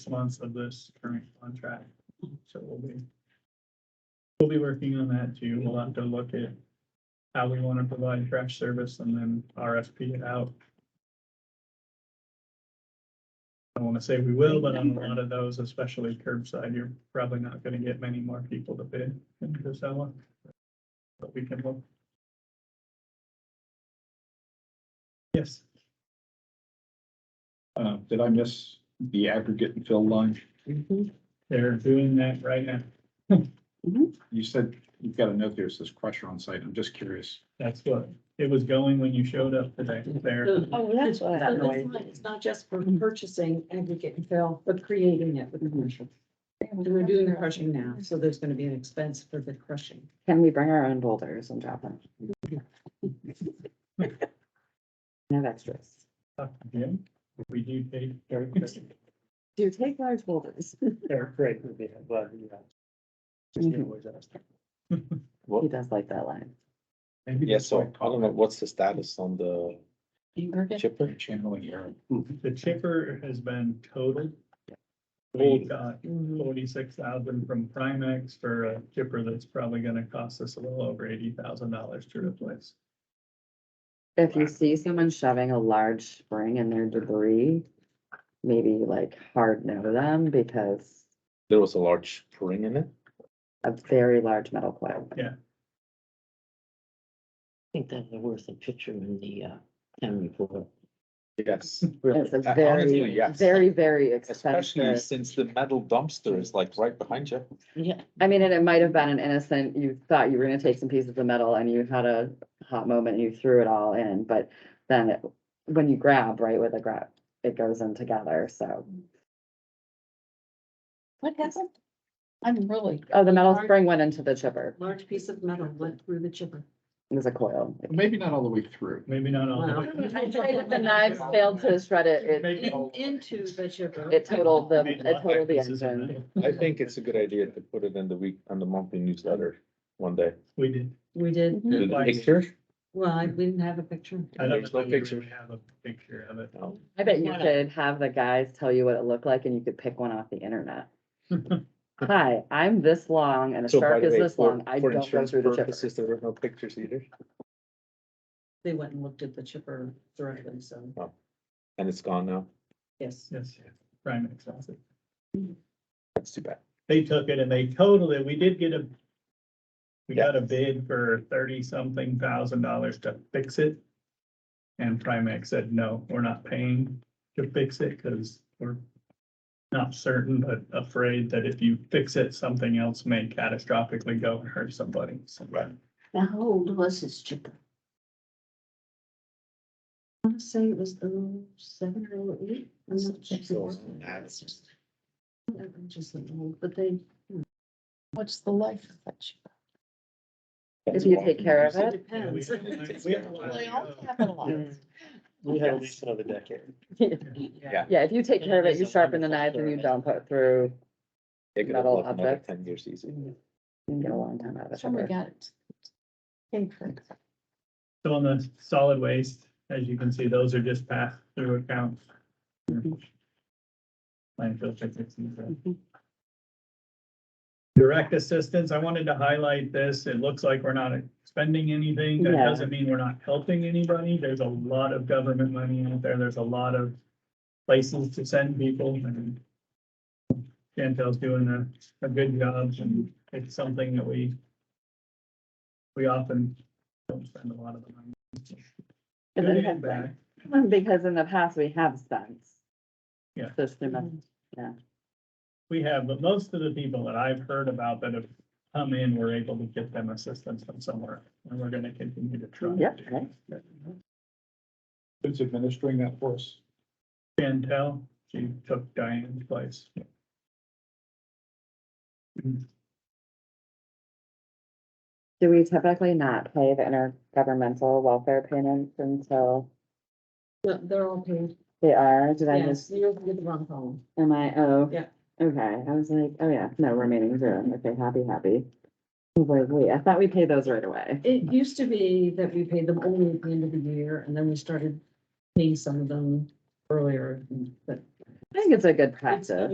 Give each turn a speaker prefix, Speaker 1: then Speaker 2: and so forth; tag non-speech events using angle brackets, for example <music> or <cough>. Speaker 1: months of this current contract. So we'll be, we'll be working on that too. We'll have to look at how we want to provide trash service and then RFP it out. I don't want to say we will, but on a lot of those, especially curbside, you're probably not going to get many more people to bid in Casella. But we can look. Yes,
Speaker 2: Uh, did I miss the aggregate and fill line?
Speaker 3: Mm-hmm.
Speaker 1: they're doing that right now.
Speaker 2: You said you've got a note there, that says crusher on site. I'm just curious.
Speaker 1: That's what it was going when you showed up today there.
Speaker 3: Oh, that's what
Speaker 4: So
Speaker 3: that
Speaker 4: it's
Speaker 3: noise.
Speaker 4: not- It's not just for purchasing aggregate and fill, but creating it with the
Speaker 5: Mm-hmm.
Speaker 4: commercial. And we're doing the crushing now, so there's gonna be an expense for the crushing.
Speaker 3: Can we bring our own boulders and drop them? No extras.
Speaker 1: Talked to Jim. We do pay.
Speaker 6: Eric,
Speaker 3: Do you take large boulders?
Speaker 6: Eric Craig would be, but, you know. just
Speaker 3: Mhm.
Speaker 6: anyways, that's-
Speaker 3: He does like that line.
Speaker 1: Maybe
Speaker 7: Yeah,
Speaker 1: that's
Speaker 7: so
Speaker 1: why
Speaker 7: I don't know, what's the status on the
Speaker 3: Mm-hmm.
Speaker 7: chipper?
Speaker 2: Channeling error.
Speaker 1: The chipper has been totaled. We got
Speaker 4: Mhm.
Speaker 1: forty-six thousand from Primex for a chipper that's probably gonna cost us a little over eighty thousand dollars to replace.
Speaker 3: If you see someone shoving a large spring in their debris, maybe like hard no to them because
Speaker 7: There was a large spring in it.
Speaker 3: a very large metal coil.
Speaker 5: I think that's the worth a picture in the uh, town report.
Speaker 7: Yes.
Speaker 3: It's a
Speaker 7: Uh, honestly,
Speaker 3: very,
Speaker 7: yes.
Speaker 3: very, very
Speaker 7: Especially
Speaker 3: expensive.
Speaker 7: since the metal dumpster is like right behind you.
Speaker 5: Yeah,
Speaker 3: I mean, and it might have been an innocent, you thought you were gonna take some pieces of metal and you had a hot moment and you threw it all in, but then it- when you grab, right, with a grab, it goes in together, so.
Speaker 8: What happened? I'm really.
Speaker 3: Oh, the metal
Speaker 4: Large-
Speaker 3: spring went into the chipper.
Speaker 4: Large piece of metal went through the chipper.
Speaker 3: It was a coil.
Speaker 2: Maybe not all the way through.
Speaker 1: Maybe not all. the way.
Speaker 4: Wow. I tried it,
Speaker 3: The knives failed to shred it. It,
Speaker 1: Maybe
Speaker 4: In-
Speaker 7: Oh.
Speaker 1: all-
Speaker 4: Into the chipper.
Speaker 3: it totaled the,
Speaker 1: Maybe
Speaker 3: it totaled the
Speaker 1: pieces of
Speaker 3: engine.
Speaker 1: metal.
Speaker 7: I think it's a good idea to put it in the week, on the monthly newsletter one day.
Speaker 1: We did.
Speaker 4: We did,
Speaker 5: Mm-hmm.
Speaker 7: Do the
Speaker 1: Like-
Speaker 7: picture?
Speaker 4: well, I- we didn't have a picture.
Speaker 1: I don't
Speaker 7: There's
Speaker 1: know
Speaker 7: no
Speaker 1: if we
Speaker 7: picture.
Speaker 1: really have a picture of it.
Speaker 7: No.
Speaker 3: I bet you
Speaker 5: Why not?
Speaker 3: could have the guys tell you what it looked like and you could pick one off the
Speaker 7: <laughs>
Speaker 3: internet. Hi, I'm this long and a
Speaker 7: So by
Speaker 3: shark
Speaker 7: the
Speaker 3: is
Speaker 7: way,
Speaker 3: this
Speaker 7: for-
Speaker 3: long. I
Speaker 7: for
Speaker 3: don't go
Speaker 7: insurance
Speaker 3: through the chipper.
Speaker 7: purposes, There were no pictures either,
Speaker 4: They went and looked at the chipper directly, so,
Speaker 7: and it's gone now.
Speaker 4: yes.
Speaker 1: Yes, Primex has it.
Speaker 7: That's too bad.
Speaker 1: they took it and they totaled it. We did get a. We got a
Speaker 7: Yes.
Speaker 1: bid for thirty something thousand dollars to fix it. And Primex said, no, we're not paying to fix it because we're. Not certain, but afraid that if you fix it, something else may catastrophically go and hurt somebody. So-
Speaker 7: Right.
Speaker 8: Now, how old was this chipper?
Speaker 4: I want to say it was oh seven or oh eight. I'm not
Speaker 7: So,
Speaker 4: sure. It's just- I'm just an old, But they, hmm.
Speaker 8: What's the life of that chipper?
Speaker 7: that's
Speaker 3: If you
Speaker 7: why
Speaker 3: take
Speaker 7: we
Speaker 3: care
Speaker 7: use
Speaker 3: of
Speaker 4: it <laughs>
Speaker 3: it.
Speaker 1: Yeah, we
Speaker 4: depends.
Speaker 1: have a lot- we have a lot
Speaker 8: They all
Speaker 1: of, uh,
Speaker 8: have a life.
Speaker 3: Mm.
Speaker 6: We had at least another decade.
Speaker 3: Yeah, if you take care of it, you sharpen the knife and you don't put through,
Speaker 7: It could have
Speaker 3: metal
Speaker 7: lived another
Speaker 3: object.
Speaker 7: ten years easy.
Speaker 3: you can get a long time out of it.
Speaker 8: Somebody got it. Paid for it.
Speaker 1: So on the solid waste, as you can see, those are just passed through accounts. Landfill tickets and stuff. Direct assistance, I wanted to highlight this. It looks like we're not spending anything. That
Speaker 3: Yeah.
Speaker 1: doesn't mean we're not helping anybody. There's a lot of government money out there. There's a lot of places to send people and Chantel's doing a, a good job and it's something that we we often don't spend a lot of the money.
Speaker 3: And
Speaker 1: Good
Speaker 3: then
Speaker 1: and
Speaker 3: have
Speaker 1: bad.
Speaker 3: them, Because in the past, we have spent.
Speaker 1: Yeah.
Speaker 3: Just the amount-
Speaker 1: We have, but most of the people that I've heard about that have come in, we're able to get them assistance from somewhere, and we're gonna continue to try. to
Speaker 3: Yep,
Speaker 1: do
Speaker 3: right.
Speaker 1: that.
Speaker 2: Who's administering that for us?
Speaker 1: Chantel, she took Diane's place.
Speaker 3: Do we typically not pay the intergovernmental welfare payments until
Speaker 4: No, They're all paid.
Speaker 3: they are? Did I
Speaker 4: Yes,
Speaker 3: just,
Speaker 4: you're looking at the wrong column.
Speaker 3: am I, oh?
Speaker 4: Yeah.
Speaker 3: Okay, I was like, oh yeah, no, remaining zero. Okay, happy, happy. I was like, wait, I thought we paid those right away.
Speaker 4: It used to be that we paid them only at the end of the year, and then we started paying some of them earlier, but
Speaker 3: I think it's a good practice.